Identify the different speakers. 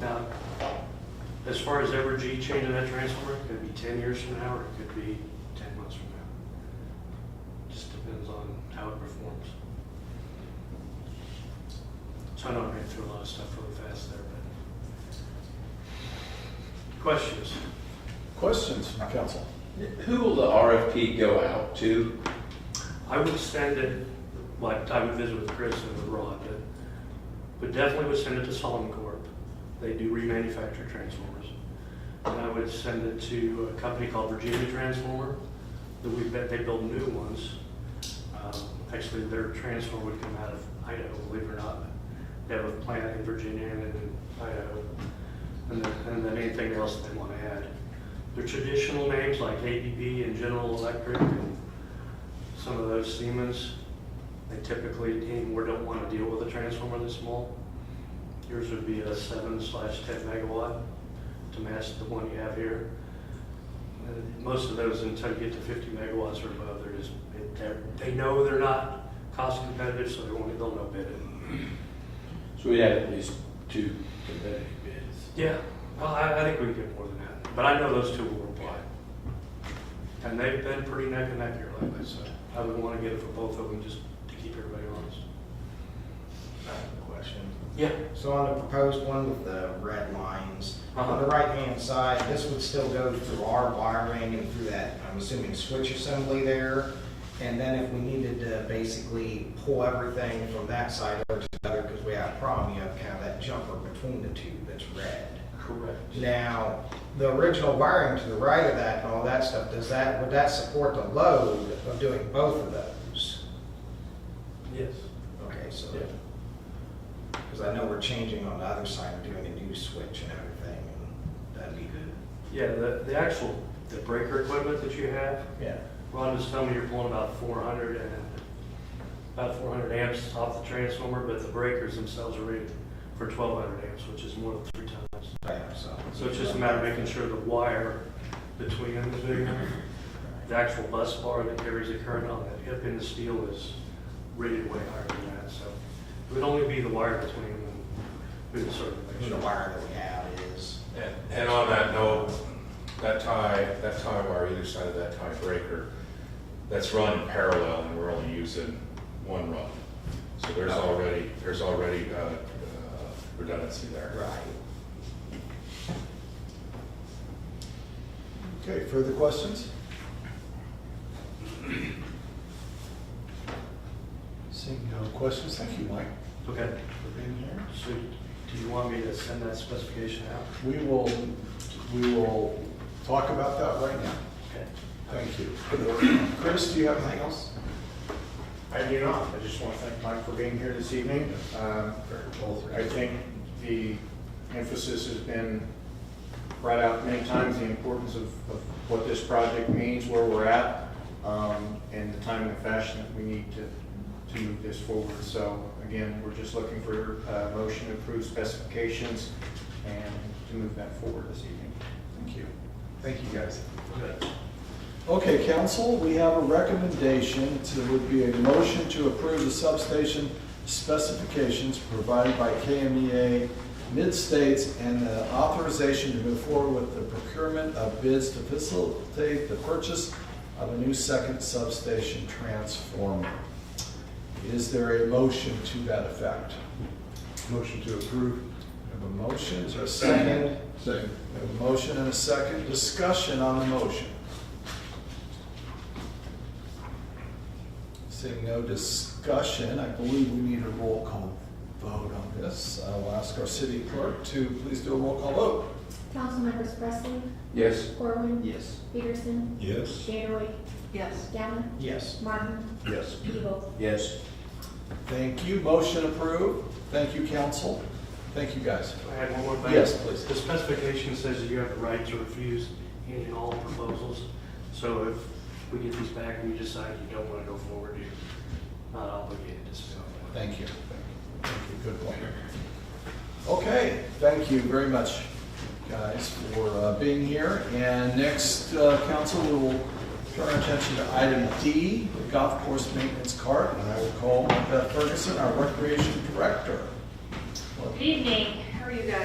Speaker 1: Now, as far as Evergy changing that transformer, it could be ten years from now, or it could be ten months from now. Just depends on how it performs. So I know I ran through a lot of stuff really fast there, but. Questions?
Speaker 2: Questions from council?
Speaker 3: Who will the RFP go out to?
Speaker 1: I would send it, like, I would visit with Chris and with Rod, but, but definitely would send it to Solomon Corp. They do remanufacture transformers. And I would send it to a company called Virginia Transformer, that we bet they build new ones. Um, Actually, their transformer would come out of Idaho, believe it or not. They have a plant in Virginia and in Idaho. And then, and then anything else they want to add. Their traditional names like ABB and General Electric and some of those Siemens, they typically anymore don't want to deal with a transformer this small. Yours would be a seven slash ten megawatt to match the one you have here. And Most of those until you get to fifty megawatts or above, they're just, they're, they know they're not cost competitive, so they won't, they'll no bid it.
Speaker 3: So we have at least two competitive bids.
Speaker 1: Yeah, well, I, I think we can get more than that, but I know those two will reply. And they've been pretty neck and neck here lately, so I would want to get it for both of them just to keep everybody honest.
Speaker 4: Question.
Speaker 1: Yeah.
Speaker 4: So on the proposed one with the red lines, on the right-hand side, this would still go through our wiring and through that, I'm assuming, switch assembly there. And then if we needed to basically pull everything from that side over to the other, because we have a problem, you have kind of that jumper between the two that's red.
Speaker 1: Correct.
Speaker 4: Now, the original wiring to the right of that and all that stuff, does that, would that support the load of doing both of those?
Speaker 1: Yes.
Speaker 4: Okay, so,
Speaker 1: Yeah.
Speaker 4: because I know we're changing on the other side, we're doing a new switch and everything, and that'd be good.
Speaker 1: Yeah, the, the actual, the breaker equipment that you have,
Speaker 4: Yeah.
Speaker 1: Ron was telling me you're pulling about four hundred and, about four hundred amps off the transformer, but the breakers themselves are rated for twelve hundred amps, which is more than three times.
Speaker 4: Yeah, so.
Speaker 1: So it's just a matter of making sure the wire between them is big enough. The actual bus bar that carries the current on that hip in the steel is rated way higher than that, so it would only be the wire between them. We would sort of make
Speaker 4: The
Speaker 1: sure.
Speaker 4: wire that we have is,
Speaker 5: And, and on that note, that tie, that tie wire either side of that tie breaker, that's run in parallel and we're only using one run. So there's already, there's already uh, uh, redundancy there.
Speaker 4: right.
Speaker 2: Okay, further questions? Seeing no questions, thank you, Mike,
Speaker 1: Okay,
Speaker 2: for being here.
Speaker 1: so do you want me to send that specification out?
Speaker 2: We will, we will talk about that right now.
Speaker 1: Okay.
Speaker 2: Thank you. Chris, do you have anything else?
Speaker 6: I do not. I just want to thank Mike for being here this evening. Um, I think the emphasis has been brought out many times, the importance of of what this project means, where we're at, um, and the time and fashion that we need to, to move this forward. So again, we're just looking for a motion to approve specifications and to move that forward this evening.
Speaker 2: Thank you. Thank you, guys.
Speaker 1: Okay.
Speaker 2: Okay, council, we have a recommendation to, would be a motion to approve the substation specifications provided by KMEA Mid-States and the authorization to move forward with the procurement of bids to facilitate the purchase of a new second substation transformer. Is there a motion to that effect? Motion to approve. Have a motion, is there a second? Second. Have a motion and a second, discussion on the motion. Seeing no discussion, I believe we need a roll call vote on this. I will ask our city clerk to please do a roll call vote.
Speaker 7: Council members Presley,
Speaker 3: Yes.
Speaker 7: Corwin,
Speaker 4: Yes.
Speaker 7: Peterson,
Speaker 2: Yes.
Speaker 7: Danaway,
Speaker 8: Yes.
Speaker 7: Galvin,
Speaker 4: Yes.
Speaker 7: Martin,
Speaker 3: Yes.
Speaker 7: Evil.
Speaker 3: Yes.
Speaker 2: Thank you, motion approved. Thank you, council. Thank you, guys.
Speaker 1: I had one more thing.
Speaker 2: Yes, please.
Speaker 1: The specification says that you have the right to refuse any and all proposals. So if we get these back and you decide you don't want to go forward, you're not obligated to say no.
Speaker 2: Thank you. Thank you, good point. Okay, thank you very much, guys, for uh, being here. And next, uh, council, we will turn our attention to item D, the golf course maintenance cart. And I will call Beth Ferguson, our recreation director.
Speaker 9: Good evening, how are you guys?